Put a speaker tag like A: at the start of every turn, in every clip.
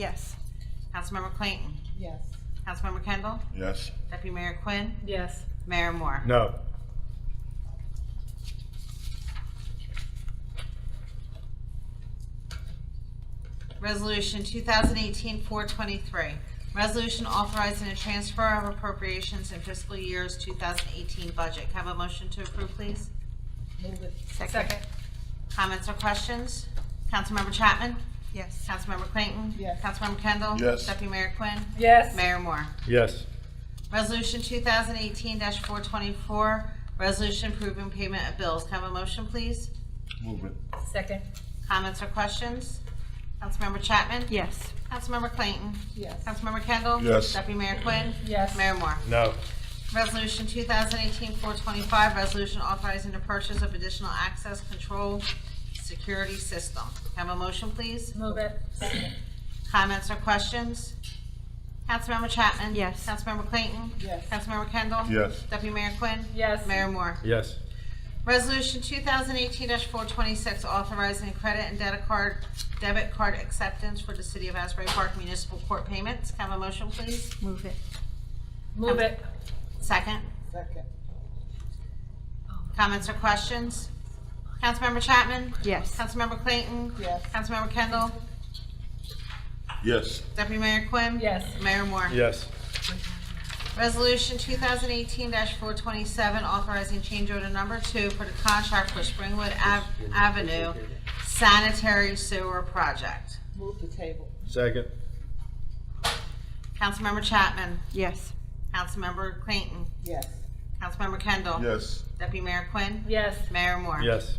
A: Yes.
B: Councilmember Clayton.
A: Yes.
B: Councilmember Kendall.
C: Yes.
B: Deputy Mayor Quinn.
D: Yes.
B: Mayor Moore.
E: No.
B: Resolution 2018-423, resolution authorizing a transfer of appropriations in fiscal year's 2018 budget. Can I Have a motion to approve, please?
A: Move it.
D: Second.
B: Comments or questions? Councilmember Chapman?
A: Yes.
B: Councilmember Clayton?
A: Yes.
B: Councilmember Kendall?
C: Yes.
B: Deputy Mayor Quinn?
D: Yes.
B: Mayor Moore.
E: Yes.
B: Resolution 2018-424, resolution approving payment of bills. Can I Have a motion, please?
C: Move it.
D: Second.
B: Comments or questions? Councilmember Chapman?
A: Yes.
B: Councilmember Clayton?
A: Yes.
B: Councilmember Kendall?
C: Yes.
B: Deputy Mayor Quinn?
D: Yes.
B: Mayor Moore.
E: No.
B: Resolution 2018-425, resolution authorizing the purchase of additional access control security system. Have a motion, please?
D: Move it.
B: Comments or questions? Councilmember Chapman?
A: Yes.
B: Councilmember Clayton?
A: Yes.
B: Councilmember Kendall?
C: Yes.
B: Deputy Mayor Quinn?
D: Yes.
B: Mayor Moore.
E: Yes.
B: Resolution 2018-426, authorizing credit and debit card, debit card acceptance for the City of Asbury Park Municipal Court payments. Have a motion, please?
A: Move it.
D: Move it.
B: Second.
A: Second.
B: Comments or questions? Councilmember Chapman?
A: Yes.
B: Councilmember Clayton?
A: Yes.
B: Councilmember Kendall?
C: Yes.
B: Deputy Mayor Quinn?
D: Yes.
B: Mayor Moore?
E: Yes.
B: Resolution 2018-427, authorizing change order number two for the contract for Springwood Ave- Avenue sanitary sewer project.
A: Move the table.
E: Second.
B: Councilmember Chapman?
A: Yes.
B: Councilmember Clayton?
A: Yes.
B: Councilmember Kendall?
C: Yes.
B: Deputy Mayor Quinn?
D: Yes.
B: Mayor Moore?
E: Yes.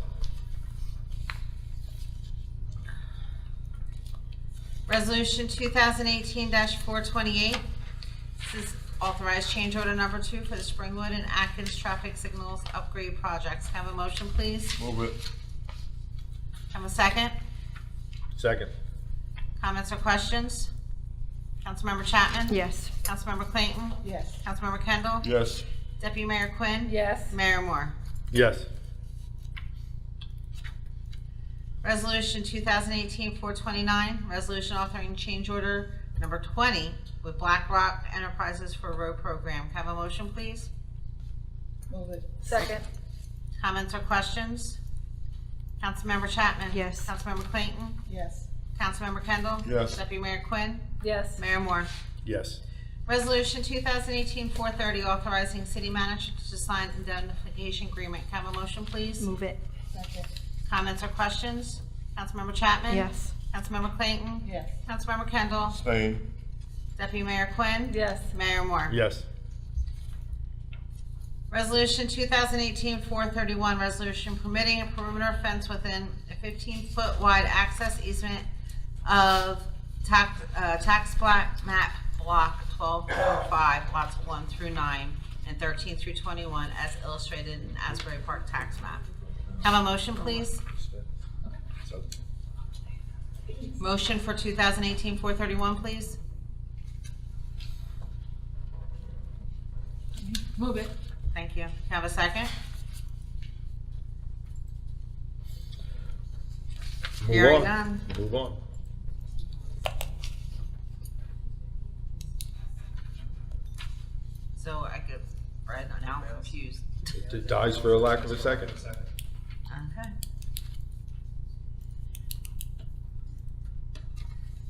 B: Resolution 2018-428, this is authorized change order number two for the Springwood and Atkins traffic signals upgrade projects. Can I Have a motion, please? Can
C: Move it.
B: I Have a second?
E: Second.
B: Comments or questions? Councilmember Chapman?
A: Yes.
B: Councilmember Clayton?
A: Yes.
B: Councilmember Kendall?
C: Yes.
B: Deputy Mayor Quinn?
D: Yes.
B: Mayor Moore?
E: Yes.
B: Resolution 2018-429, resolution authoring change order number 20 with Black Rock Enterprises for road program. Can I Have a motion, please?
A: Move it.
D: Second.
B: Comments or questions? Councilmember Chapman?
A: Yes.
B: Councilmember Clayton?
A: Yes.
B: Councilmember Kendall?
C: Yes.
B: Deputy Mayor Quinn?
D: Yes.
B: Mayor Moore?
E: Yes.
B: Resolution 2018-430, authorizing city manager to sign indemnification agreement. Can I have a motion, please?
A: Move it. Second.
B: Comments or questions? Councilmember Chapman?
A: Yes.
B: Councilmember Clayton?
A: Yes.
B: Councilmember Kendall?
C: Stay.
B: Deputy Mayor Quinn?
D: Yes.
B: Mayor Moore?
E: Yes.
B: Resolution 2018-431, resolution permitting a perimeter fence within a 15-foot wide access easement of tax, uh, tax block, map block 1245, lots 1 through 9 and 13 through 21 as illustrated in Asbury Park tax map. Have a motion, please? Motion for 2018-431, please?
D: Move it.
B: Thank you. Have a second? Hearing
E: Move on.
B: none.
E: Move on.
B: So I could, right now I'm confused.
E: It dies for a lack of a second.
B: Okay.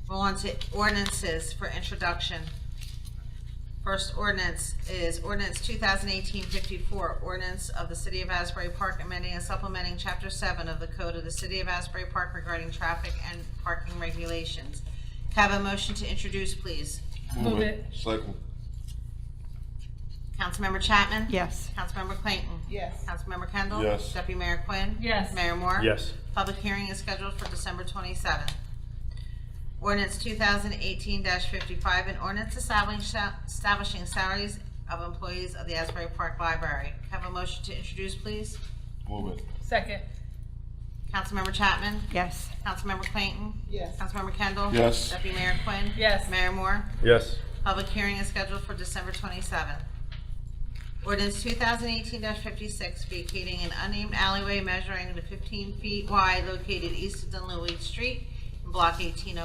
B: Roll on to ordinances for introduction. First ordinance is ordinance 2018-54, ordinance of the City of Asbury Park amending and supplementing Chapter 7 of the Code of the City of Asbury Park regarding traffic and parking regulations. Can I Have a motion to introduce, please.
D: Move it.
C: Second.
B: Councilmember Chapman?
A: Yes.
B: Councilmember Clayton?
A: Yes.
B: Councilmember Kendall?
C: Yes.
B: Deputy Mayor Quinn?
D: Yes.
B: Mayor Moore?
E: Yes.
B: Public hearing is scheduled for December 27th. Ordinance 2018-55, an ordinance establishing establishing salaries of employees of the Asbury Park Library. Have a motion to introduce, please.
C: Move it.
D: Second.
B: Councilmember Chapman?
A: Yes.
B: Councilmember Clayton?
A: Yes.
B: Councilmember Kendall?
C: Yes.
B: Deputy Mayor Quinn?
D: Yes.
B: Mayor Moore?
E: Yes.
B: Public hearing is scheduled for December 27th. Ordinance 2018-56, vacating an unnamed alleyway measuring the 15 feet wide located east of Dunleavy Street in Block oh 18